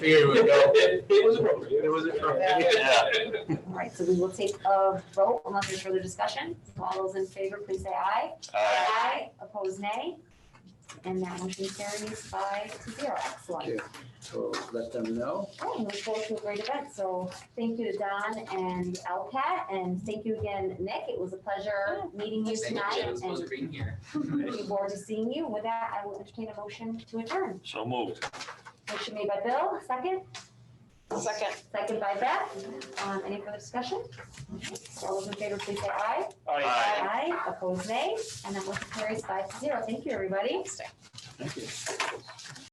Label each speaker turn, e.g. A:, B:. A: Here we go.
B: It it was appropriate.
A: It was appropriate.
B: Yeah.
C: All right, so we will take a vote unless there's further discussion. All those in favor, please say aye. Aye. Opposed, nay. And that motion carries five to zero. Excellent.
A: So let them know.
C: Oh, we look forward to a great event. So thank you to Don and LCAT, and thank you again, Nick. It was a pleasure meeting you
D: Thank you,
C: tonight.
D: Jen, it was a pleasure being here.
C: And looking forward to seeing you. With that, I will entertain a motion to adjourn.
E: So moved.
C: Motion made by Bill, second.
F: Second.
C: Second by Beth. Um, Any further discussion? All those in favor, please say aye.
E: Aye.
C: Aye, opposed nay, and that motion carries five to zero. Thank you, everybody.
F: Thanks, Dick.
A: Thank you.